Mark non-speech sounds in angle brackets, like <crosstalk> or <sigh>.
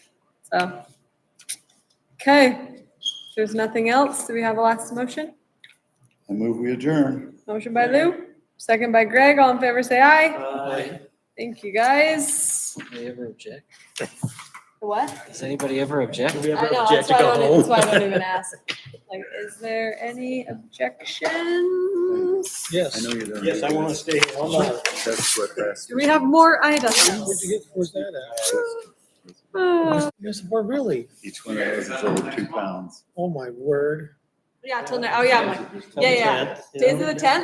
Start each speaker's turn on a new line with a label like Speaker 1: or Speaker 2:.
Speaker 1: So, okay, if there's nothing else, do we have a last motion?
Speaker 2: I move we adjourn.
Speaker 1: Motion by Lou, second by Greg, all in favor, say aye.
Speaker 3: Uh,
Speaker 4: Aye.
Speaker 1: Thank you, guys.
Speaker 4: Does anybody ever object?
Speaker 1: What?
Speaker 4: Does anybody ever object?
Speaker 3: Do we
Speaker 1: I
Speaker 3: ever
Speaker 1: know, that's
Speaker 3: object to
Speaker 1: why I
Speaker 3: go
Speaker 1: don't, e- that's why I don't
Speaker 3: home?
Speaker 1: even ask. Like, is there any objections?
Speaker 2: I
Speaker 3: <laughs> Yes,
Speaker 2: know you don't.
Speaker 3: yes, I want to stay here all night.
Speaker 2: That's what that's.
Speaker 1: Do we have more
Speaker 3: Where'd
Speaker 1: items?
Speaker 3: you get, where's that at?
Speaker 1: Uh,
Speaker 3: Yes, we're really,
Speaker 2: Each one of those is over two pounds.
Speaker 3: oh my word.
Speaker 1: Yeah, till now, oh yeah, I'm like, yeah, yeah.
Speaker 3: Tenth, you
Speaker 1: Days of
Speaker 3: know?
Speaker 1: the tenth?